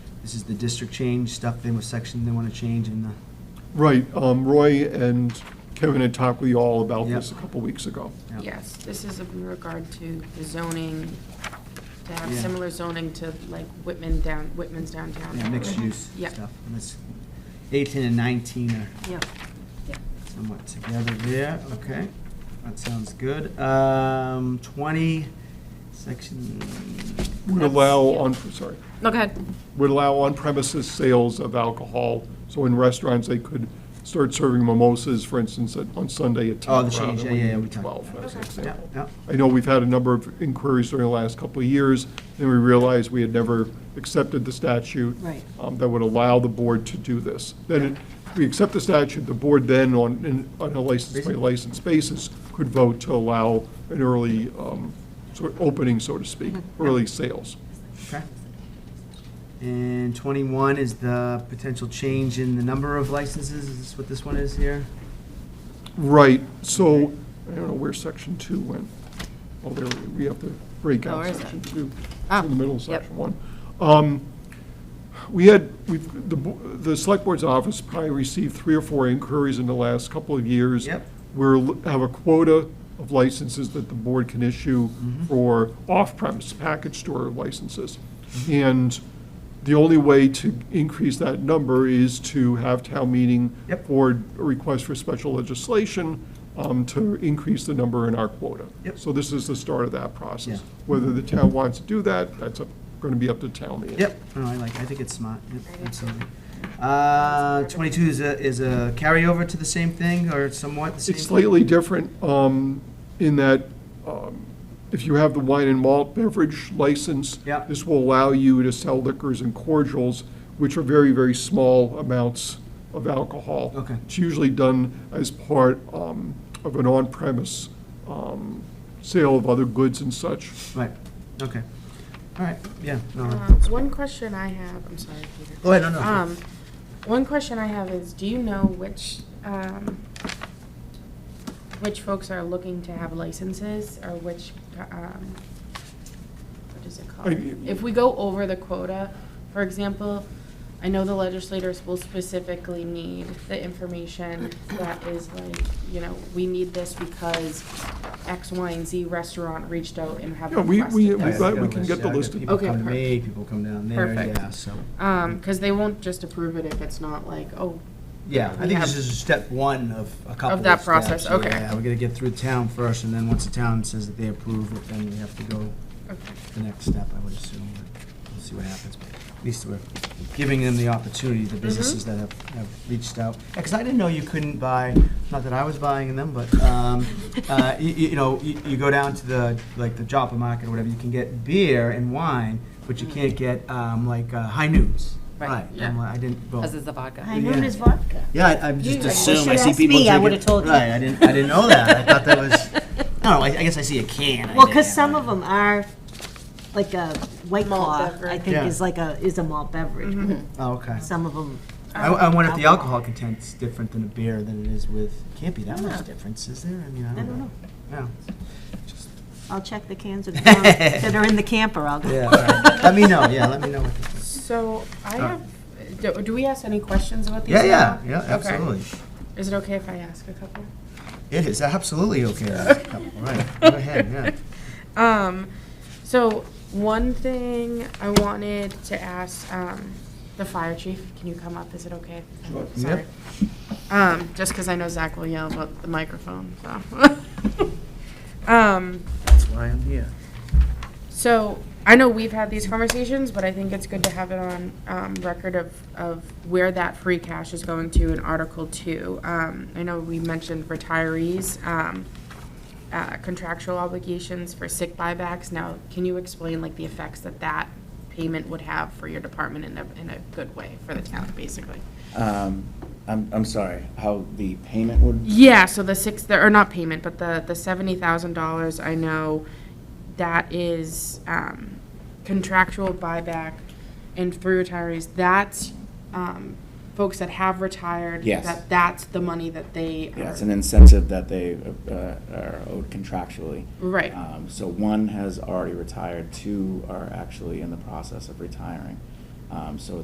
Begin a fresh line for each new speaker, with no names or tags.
This is the district change, stuff they, section they want to change in the,
Right, um, Roy and Kevin had talked with you all about this a
Yeah.
couple weeks ago.
Yes, this is in regard to the zoning, to have
Yeah.
similar zoning to like Whitman down, Whitman's downtown. Mm-hmm.
yeah, mixed use
Yeah.
stuff. And that's Eighteen and nineteen are
Yep.
somewhat together there, okay. That sounds good. Um, twenty, section,
Would
That's-
allow
yeah.
on, sorry,
No, go ahead.
would allow on-premises sales of alcohol. So in restaurants, they could start serving mimosas, for instance, at- on Sunday at 10.
Oh, the change,
rather
yeah,
than
yeah, yeah, we talked
12,
about
as an
that.
yeah,
example.
yeah,
I know we've had a number of inquiries during the last couple of years, and we realized we had never accepted the statute.
Right.
um, That would allow the board to do this. Then, it- we accept the statute, the board then, on, in- on a license by license basis, could vote to allow an early, um, sort of opening, so to speak,
Mm-hmm.
early sales.
okay. And twenty-one is the potential change in the number of licenses, is this what this one is here?
Right, so, I don't know where section two went. Oh, there, we- we have to break
Oh,
out
where is it?
section two.
Ah,
It's in the middle of
yep.
section one. Um, We had, we've, the, bo- the select board's office probably received three or four inquiries in the last couple of years.
Yep.
We're, l- have a quota of licenses that the board can issue
Mm-hmm.
for off-premise package store licenses. And the only way to increase that number is to have town meeting
Yep.
or a request for special legislation um, to increase the number in our quota.
Yep.
So this is the start of that
Yeah.
process. Whether the town wants to do that, that's going to be up to town meeting.
Yep, no, I like, I think it's smart, yep, absolutely. Uh, twenty-two is a, is a carryover to the same thing, or somewhat the same?
It's
thing?
slightly different um, in that um, if you have the wine and malt beverage license,
Yep.
this will allow you to sell liquors and cordials, which are very, very small amounts of alcohol.
Okay.
It's usually done as part um, of an on-premise um, sale of other goods and such.
Right, okay. All right, yeah, no,
Uh,
Um, that's-
One question I have, I'm sorry, Peter.
Go ahead, no, no, sure.
Um, One question I have is, do you know which, um, which folks are looking to have licenses, or which, um, what is it called?
I-
If we go over the quota, for example, I know the legislators will specifically need the information that is like, you know, we need this because X, Y, and Z restaurant reached out and have
Yeah, we- we-
requested
we've
this.
Yeah,
got- we
I
can
a
get the
yeah, I got
list.
People
Okay,
come to me,
perfect.
people come down there,
Perfect.
yeah, so,
Um, because they won't just approve it if it's not like, oh,
yeah, I
We
think this
have-
is step one of a couple of
that
steps,
process, okay.
Yeah, we're gonna get through town first, and then once the town says that they approve it, then we have to go
okay,
to the next step, I would assume, but we'll see what happens. But At least we're giving them the opportunity,
Mm-hmm.
the businesses that have, have reached out. Because I didn't know you couldn't buy, not that I was buying them, but, um, uh, you, you know, you, you go down to the, like, the Joppa Market or whatever, you can get beer and wine, but
Mm-hmm.
you can't get, um, like, uh, high noons.
Right,
yeah.
I'm like, I didn't, well.
Because it's the vodka.
I know
Yeah.
there's vodka.
Yeah, I, I just
You-
assume, I
If
see people
you'd asked me, I
drinking-
would've told you.
Right, I didn't, I didn't know that. I thought that was, no, I, I guess I see a can. I didn't
Well, because
have
some
it.
of them are, like a White
Malt
Claw, I
beverage. Mm-hmm.
think
Yeah.
is like a, is a malt beverage.
Oh, okay.
Some of them,
I, I wonder if the alcohol content's different than a beer than it is with, can't be that much difference, is there? I mean, I
I don't know.
No.
I'll check the cans of, that are in the camper, I'll go.
Yeah, all right. let me know, yeah, let me know what this is.
So I have, do, do we ask any questions about these?
Yeah, yeah,
now?
yeah,
Okay.
absolutely.
Is it okay if I ask a couple?
It is absolutely okay. All right, go ahead, yeah.
Um, so one thing I wanted to ask, um, the fire chief, can you come up? Is it okay? Sorry. Um, just because I know Zach will yell about the microphone, so. Um,
That's why I'm here.
So I know we've had these conversations, but I think it's good to have it on um, record of, of where that free cash is going to in Article Two. Um, I know we mentioned retirees, um, uh, contractual obligations for sick buybacks. Now, can you explain like the effects that that payment would have for your department in a, in a good way for the town, basically?
Um, I'm, I'm sorry, how the payment would,
Yeah, so the six, the- or not payment, but the, the seventy thousand dollars, I know that is um, contractual buyback and through retirees, that's um, folks that have retired.
Yes.
That, that's the money that they
yeah, it's
are,
an incentive that they uh, are owed contractually.
right,
Um, So one has already retired, two are actually in the process of retiring. Um, So